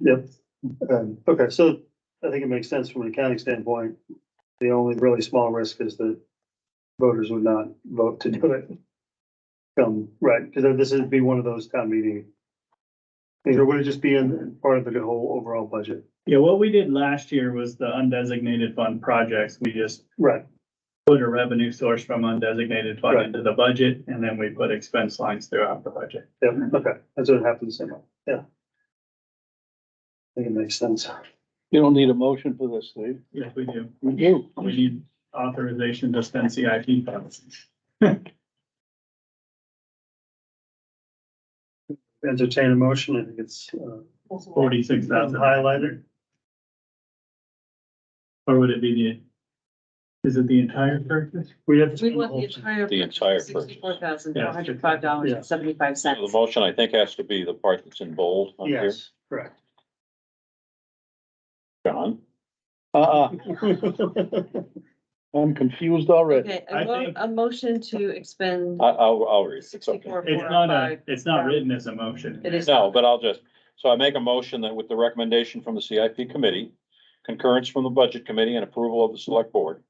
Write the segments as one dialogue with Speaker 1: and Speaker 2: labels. Speaker 1: Yep. Um, okay, so I think it makes sense from an accounting standpoint. The only really small risk is that voters would not vote to do it. Um, right, because this would be one of those town meeting. things, Or would it just be in part of the whole overall budget?
Speaker 2: Yeah, what we did last year was the undesignated fund projects. We just
Speaker 1: Right,
Speaker 2: put a revenue source from undesignated fund
Speaker 1: Right.
Speaker 2: into the budget, and then we put expense lines throughout the budget.
Speaker 1: yeah, okay, that's what happens, yeah, yeah. I think it makes sense.
Speaker 3: You don't need a motion for this, Steve.
Speaker 2: Yes, we do.
Speaker 3: We do.
Speaker 2: We need authorization to spend CIP funds.
Speaker 1: Entertain a motion, I think it's, uh,
Speaker 2: Forty-six thousand,
Speaker 1: highlighted.
Speaker 2: or would it be the, is it the entire purchase?
Speaker 1: We have.
Speaker 4: We want the entire.
Speaker 5: The entire purchase.
Speaker 4: Sixty-four thousand, four hundred five dollars and seventy-five
Speaker 5: So The
Speaker 4: cents.
Speaker 5: motion, I think, has to be the part that's in bold on here,
Speaker 1: Yes, correct.
Speaker 5: John.
Speaker 3: Uh-uh,
Speaker 1: Second,
Speaker 3: I'm confused already.
Speaker 4: Okay,
Speaker 2: I
Speaker 4: a mo-
Speaker 2: think-
Speaker 4: a motion to expend
Speaker 5: I, I'll, I'll read. it. It's okay.
Speaker 4: sixty-four,
Speaker 2: It's
Speaker 4: four oh
Speaker 2: not a,
Speaker 4: five.
Speaker 2: it's not written as a motion.
Speaker 4: It is.
Speaker 5: No, but I'll just, so I make a motion that with the recommendation from the CIP committee, concurrence from the budget committee and approval of the select board,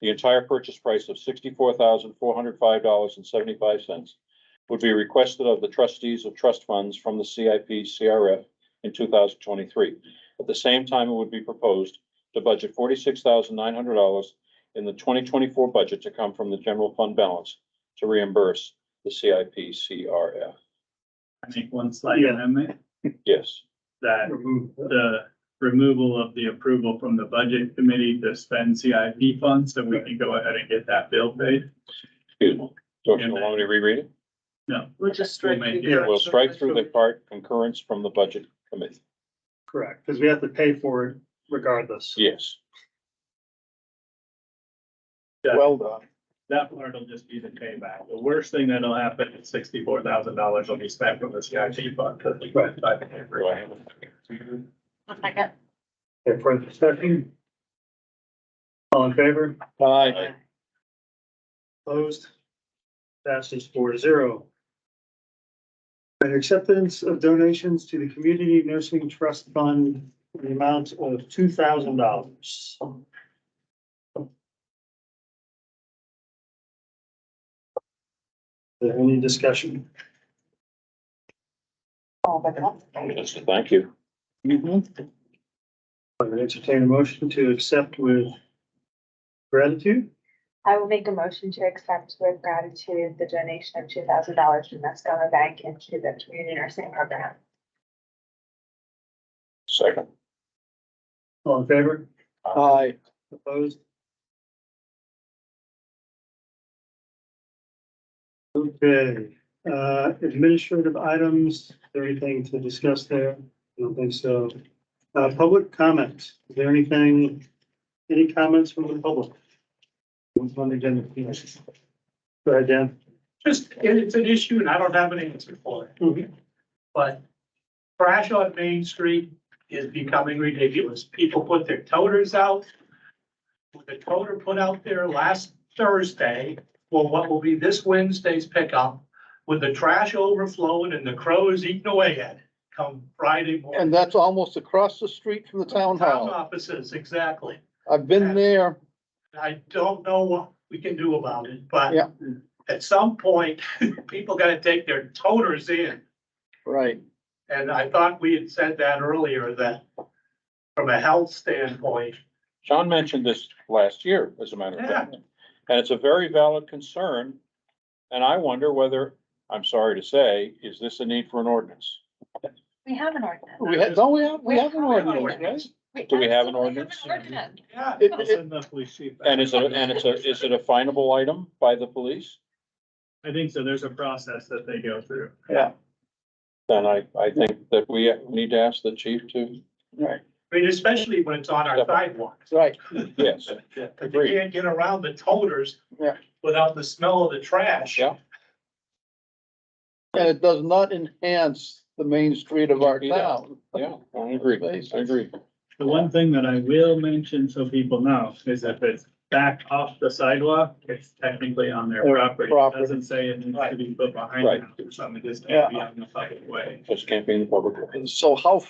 Speaker 5: the entire purchase price of sixty-four thousand, four hundred five dollars and seventy-five cents would be requested of the trustees of trust funds from the CIP CRF in two thousand twenty-three. At the same time, it would be proposed to budget forty-six thousand, nine hundred dollars in the twenty twenty-four budget to come from the general fund balance to reimburse the CIP CRF.
Speaker 2: I make one slight
Speaker 1: Yeah.
Speaker 2: amendment
Speaker 5: Yes.
Speaker 2: that the removal of the approval from the budget committee to spend CIP funds, so we can go ahead and get that bill paid.
Speaker 5: Excuse me, don't you
Speaker 2: And then-
Speaker 5: want me to reread it?
Speaker 2: No,
Speaker 4: We'll just strike.
Speaker 2: We'll make
Speaker 4: through
Speaker 2: it-
Speaker 4: the-
Speaker 5: We'll strike through the part concurrence from the budget committee.
Speaker 1: Correct, because we have to pay for it regardless.
Speaker 5: Yes,
Speaker 3: Well done.
Speaker 2: that part will just be the payback. The worst thing that'll happen is sixty-four thousand dollars will be spent from the CIP fund. to the-
Speaker 1: Right.
Speaker 2: by the paper.
Speaker 5: Do I have a
Speaker 1: Okay, further discussion? All in favor?
Speaker 3: Aye.
Speaker 1: Opposed? Passes four zero. And acceptance of donations to the Community Nursing Trust Fund in the amount of two thousand dollars. Any discussion?
Speaker 5: yes, thank you.
Speaker 1: I would entertain a motion to accept with gratitude.
Speaker 6: I will make a motion to accept with gratitude the donation of two thousand dollars from Mascoma Bank into the community nursing program.
Speaker 5: Second,
Speaker 1: All in favor?
Speaker 3: Aye.
Speaker 1: Opposed? Okay, uh, administrative items, is there anything to discuss there? I don't think so. Uh, public comment, is there anything, any comments from the public? What's on the agenda? Go ahead, Dan.
Speaker 7: just, it- it's an issue and I don't have an answer for it,
Speaker 1: Mhm.
Speaker 7: but trash on Main Street is becoming ridiculous. People put their toters out. With The toter put out there last Thursday, well, what will be this Wednesday's pickup with the trash overflowing and the crows eating away at it come Friday morning.
Speaker 3: And that's almost across the street from the town
Speaker 7: Town
Speaker 3: hall.
Speaker 7: offices, exactly.
Speaker 3: I've been there.
Speaker 7: I don't know what we can do about it, but
Speaker 3: Yeah.
Speaker 7: at some point, people gotta take their toters in.
Speaker 3: Right.
Speaker 7: And I thought we had said that earlier, that from a health standpoint,
Speaker 5: John mentioned this last year, as a matter of fact, and it's a very valid concern. And I wonder whether, I'm sorry to say, is this a need for an ordinance?
Speaker 6: We have an ordinance.
Speaker 3: We had, don't we have, we have an
Speaker 6: We have an
Speaker 3: ordinance, right?
Speaker 7: ordinance.
Speaker 5: Do we have an
Speaker 6: absolutely
Speaker 5: ordinance?
Speaker 6: ordinance.
Speaker 7: yeah,
Speaker 3: It-
Speaker 2: I'll
Speaker 3: it-
Speaker 2: send the police chief back.
Speaker 5: And is it, and it's a, is it a finable item by the police?
Speaker 2: I think so. There's a process that they go through.
Speaker 5: Then I, I think that we need to ask the chief to,
Speaker 7: I mean, especially when it's on our sidewalks.
Speaker 3: Right.
Speaker 5: yes,
Speaker 7: But you can't get around the toters
Speaker 3: Yeah.
Speaker 7: without the smell of the trash.
Speaker 5: yeah.
Speaker 3: And it does not enhance the main street of our
Speaker 5: Yeah.
Speaker 3: town.
Speaker 5: Yeah, I agree, I agree.
Speaker 2: The one thing that I will mention so people know is if it's back off the sidewalk, it's technically on their
Speaker 3: Or
Speaker 2: property. It
Speaker 3: property.
Speaker 2: Doesn't say it needs to be put behind the
Speaker 5: Right.
Speaker 2: house or something. It just can't be on the public way.
Speaker 5: Just can't be in the public.
Speaker 3: So how